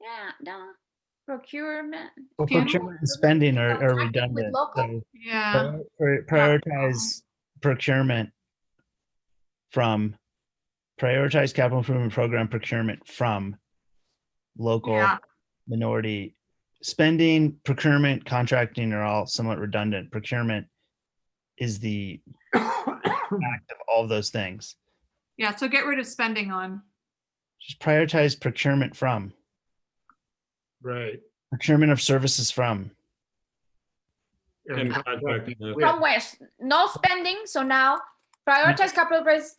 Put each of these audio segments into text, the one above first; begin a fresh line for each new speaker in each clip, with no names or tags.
yeah, duh. Procurement.
Well,
Do you-
procurement and spending are,
Oh, I
are
think with
redundant.
local-
so
Yeah,
prior- pri- Prioritize procurement from, prioritize capital improvement program procurement from local
Yeah.
minority spending, procurement, contracting are all somewhat redundant. Procurement is the act of all of those things.
yeah, so get rid of spending on.
Just prioritize procurement from,
Right.
procurement of services from.
And
Yeah.
contracting with-
From where? S- No spending, so now prioritize capital pres-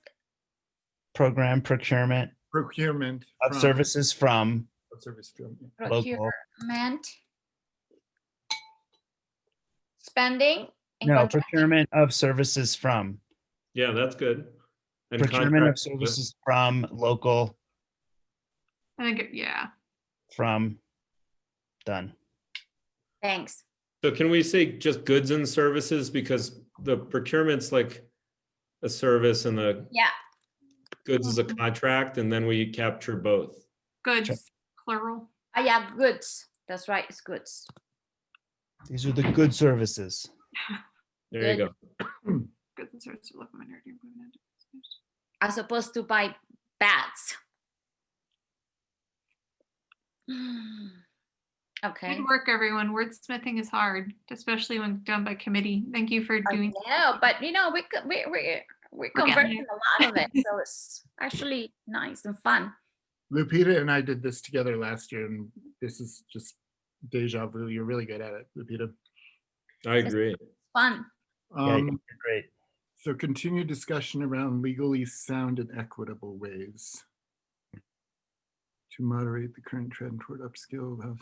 program procurement
procurement.
of
from-
services from
of Service from.
local.
procurement. Spending. and
No,
contract-
procurement of services from,
Yeah, that's good. And
procurement of
contract with-
services from local,
I think, it- yeah,
from, done.
Thanks.
So can we say just goods and services because the procurement's like a service and the
Yeah,
goods is a
Mm-hmm.
contract and then we capture both.
goods, plural.
I have goods. That's right, it's goods.
These are the good services.
There you
Good.
go.
Goods and services of local minority improvement.
As opposed to buy bats. Okay.
Good work, everyone. Wordsmithing is hard, especially when done by committee. Thank you for
I
doing.
know, but you know, we co- we we we
We're getting
converting a lot of it, so it's actually nice and fun.
Lupita and I did this together last year and this is just deja vu. You're really good at it, Lupita.
I agree.
Fun.
Yeah,
Um,
you're Great.
so continued discussion around legally sound and equitable ways to moderate the current trend toward upscale of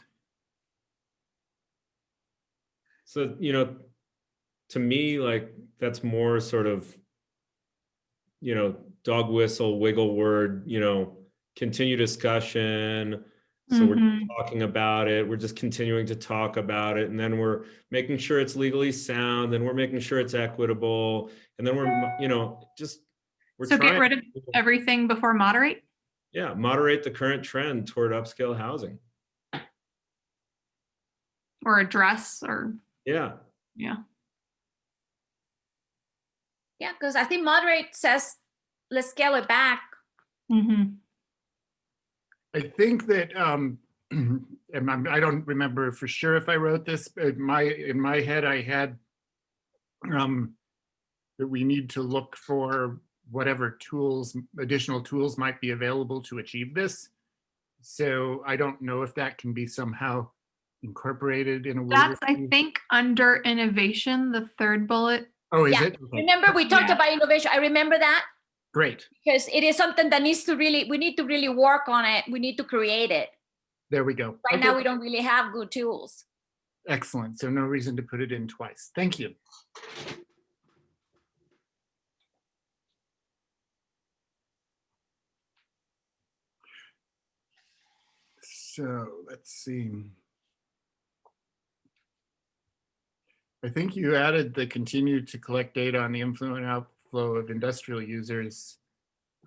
So, you know, to me, like, that's more sort of, you know, dog whistle, wiggle word, you know, continue discussion. So
Mm-hmm.
we're
Mhm.
talking about it. We're just continuing to talk about it. And then we're making sure it's legally sound and we're making sure it's equitable. And then we're, you know, just. we're
So get
trying
rid of
to-
everything before moderate.
Yeah, moderate the current trend toward upscale housing.
or address or
Yeah,
Yeah, because I think moderate says let's scale it back.
I think that, um, and I'm, I don't remember for sure if I wrote this, but my, in my head, I had um, that we need to look for whatever tools, additional tools might be available to achieve this. So I don't know if that can be somehow incorporated in a. word or
that's i
two.
think under innovation the third bullet
Oh, is
Yeah.
it? Okay,
Remember, we talked
Yeah.
about innovation. I remember that
Great.
because it is something that needs to really we need to really work on it. We need to create it.
There we go.
Right
Okay,
now, we don't really have good tools.
Excellent. So no reason to put it in twice. Thank you. So let's see. I think you added the continue to collect data on the inflow and outflow of industrial users.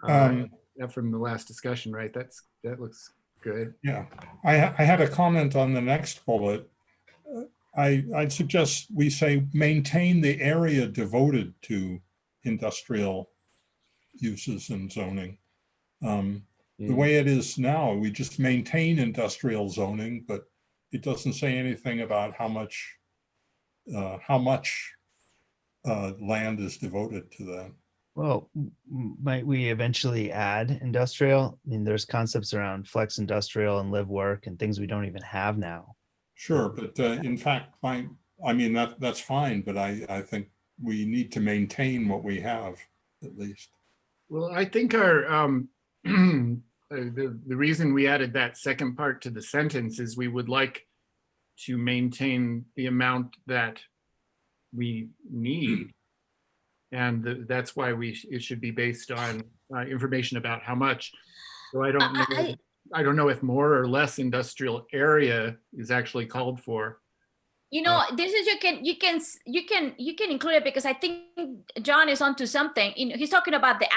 uh,
Um,
yeah, From the last discussion, right? That's, that looks good.
Yeah, I, ha- I had a comment on the next bullet. Uh, I, I'd suggest we say maintain the area devoted to industrial uses and zoning. Um, The
Mm.
way it is now, we just maintain industrial zoning, but it doesn't say anything about how much, uh, how much uh, land is devoted to that.
Well, m- m- might we eventually add industrial? I mean, there's concepts around flex industrial and live work and things we don't even have now.
Sure, but uh, in fact, my, I mean, that, that's fine, but I, I think we need to maintain what we have, at least.
Well, I think our, um, uh, the, the reason we added that second part to the sentence is we would like to maintain the amount that we need. And th- that's why we, sh- it should be based on, uh, information about how much. So I don't
I-
know, I don't know if more or less industrial area is actually called for.
You know, this is you can you can s- you can you can include it because I think John is onto something. You know, he's talking about the